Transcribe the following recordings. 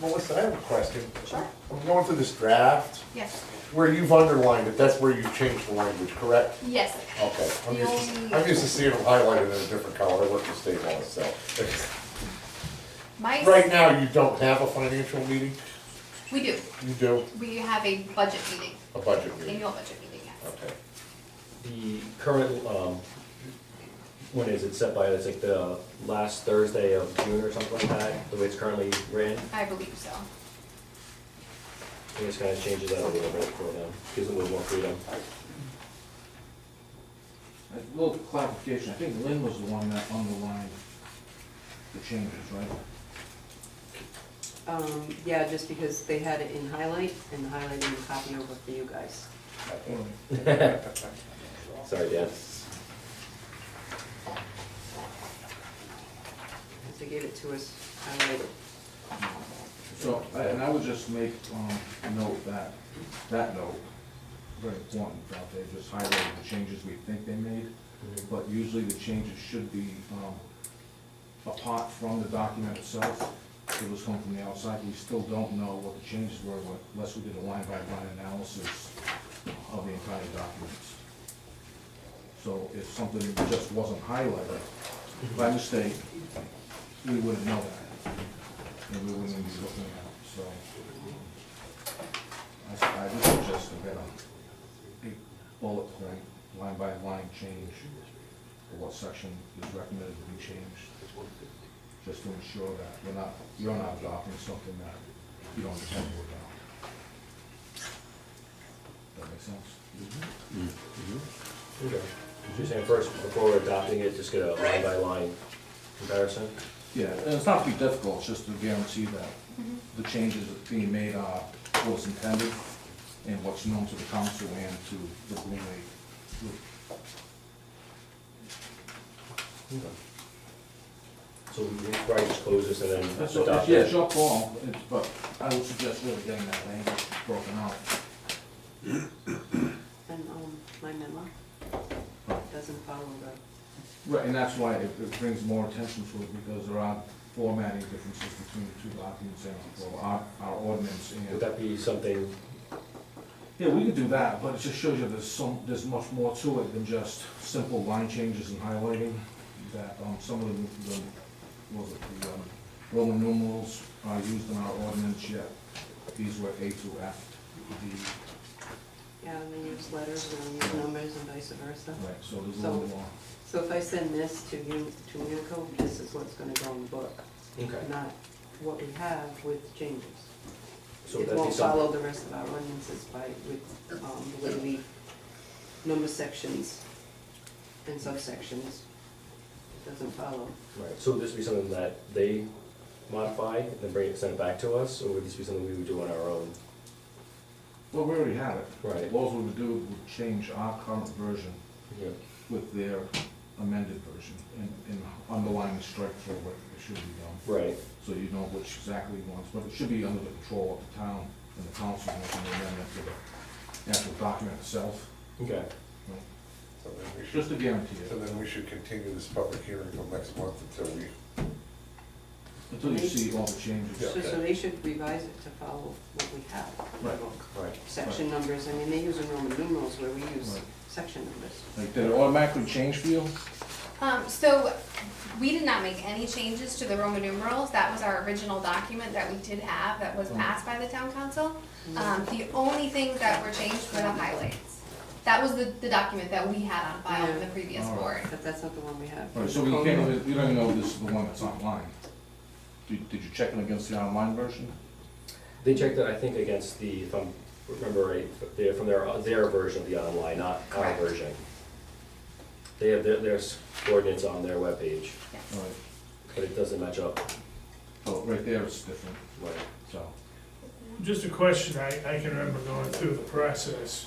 Melissa, I have a question. Sure. I'm going through this draft, Yes, where you've underlined it, that's where you changed the language, correct? yes. Okay, Oh. I'm The used, to- only- I'm used to seeing them highlighted in a different color, I work for state law, so. My, Right now, you don't have a financial meeting, we do. you do We have a budget meeting, a budget meeting, annual budget meeting, yes. okay. The current, um, when is it set by, it's like the last Thursday of June or something like that, the way it's currently ran? I believe so. I think it's kind of changes that a little bit for them, gives them a little more freedom. A little clarification, I think Lynn was the one that underlined the changes, right? Um, yeah, just because they had it in highlight, and the highlight and the copy over for you guys. Sorry, Dan. They gave it to us highlighted. So, I- and I would just make, um, note that, that note, very important, that they just highlighted the changes we think they made, but usually the changes should be, um, apart from the document itself, it was come from the outside, we still don't know what the changes were, but unless we did a line-by-line analysis of the entire documents. So if something just wasn't highlighted, by mistake, we wouldn't know that. And we wouldn't even be looking at it, so. I, I would suggest a better, a bullet point, line by line change, for what section is recommended to be changed. Just to ensure that we're not, you're not adopting something that you don't intend to adopt. That make sense? Okay. You're saying first, before we're adopting it, just get a line by line comparison? Yeah, and it's not too difficult, it's just to guarantee that the changes that's being made are what's intended and what's known to the council and to the Blue Wave group. So we can probably just close this and That's then what, adopt it's- yeah, it's it. your call, it's, but I would suggest really getting that language broken out. And, um, my memo doesn't follow the, Right, and that's why it it brings more attention to it, because there are formatting differences between the two documents and, well, our, our ordinance Would and. that be something, Yeah, we could do that, but it just shows you there's some, there's much more to it than just simple line changes and highlighting. That, um, some of the, the, what was it, the, um, Roman numerals are used in our ordinance yet. These were A to F, D, yeah, and they use letters and they use numbers and vice versa. right, so there's a little So- more. So if I send this to you, to Unico, this is what's gonna go in the book, okay, not what we have with changes. so would It that be won't follow something? the rest of our ordinances by, with, um, the way we number sections and subsections. It doesn't follow. Right, so would this be something that they modify and then bring it, send it back to us, or would this be something we would do on our own? Well, we already have it. Right. All we would do would change our current version Yeah. with their amended version and, and underline the strike through what it should be done. Right, so you know which exactly ones, but it should be under the control of the town and the council making the amendment to the actual document itself. okay. you know, So then we should, Just to guarantee so it, then we should continue this public hearing till next month until we, until you see all the Yeah. changes. So, so they should revise it to follow what we have. in the Right. book. right, Section numbers, I mean, they use in Roman numerals where we use Right. section numbers. Like, did it automatically change for you? Um, so we did not make any changes to the Roman numerals. That was our original document that we did have that Mm-hmm. was passed by the town council. Um, the only things that were changed were the highlights. That was the, the document that we had on file in the previous Yeah. board. But that's not the one we have. Right, so we can't, really- we don't even know if this is the one that's online. Did, did you check it against the online version? They checked it, I think, against the, if I'm, remember right, they're from their, their version of the online, not our Correct. version. They have their, their coordinates on their webpage, All Yes. right, but it doesn't match up. so right there it's different, Right. so. Just a question, I, I can remember going through the process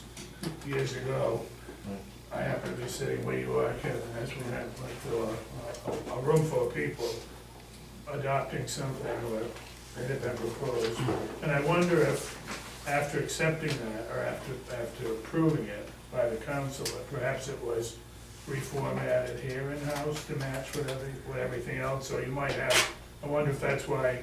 years ago. I happened to be sitting where you are, Kevin, that's when I went through uh, a, a, a room full of people adopting something or it had been proposed. And I wonder if, after accepting that, or after, after approving it by the council, that perhaps it was reformatted here in-house to match with every, with everything else, or you might have, I wonder if that's why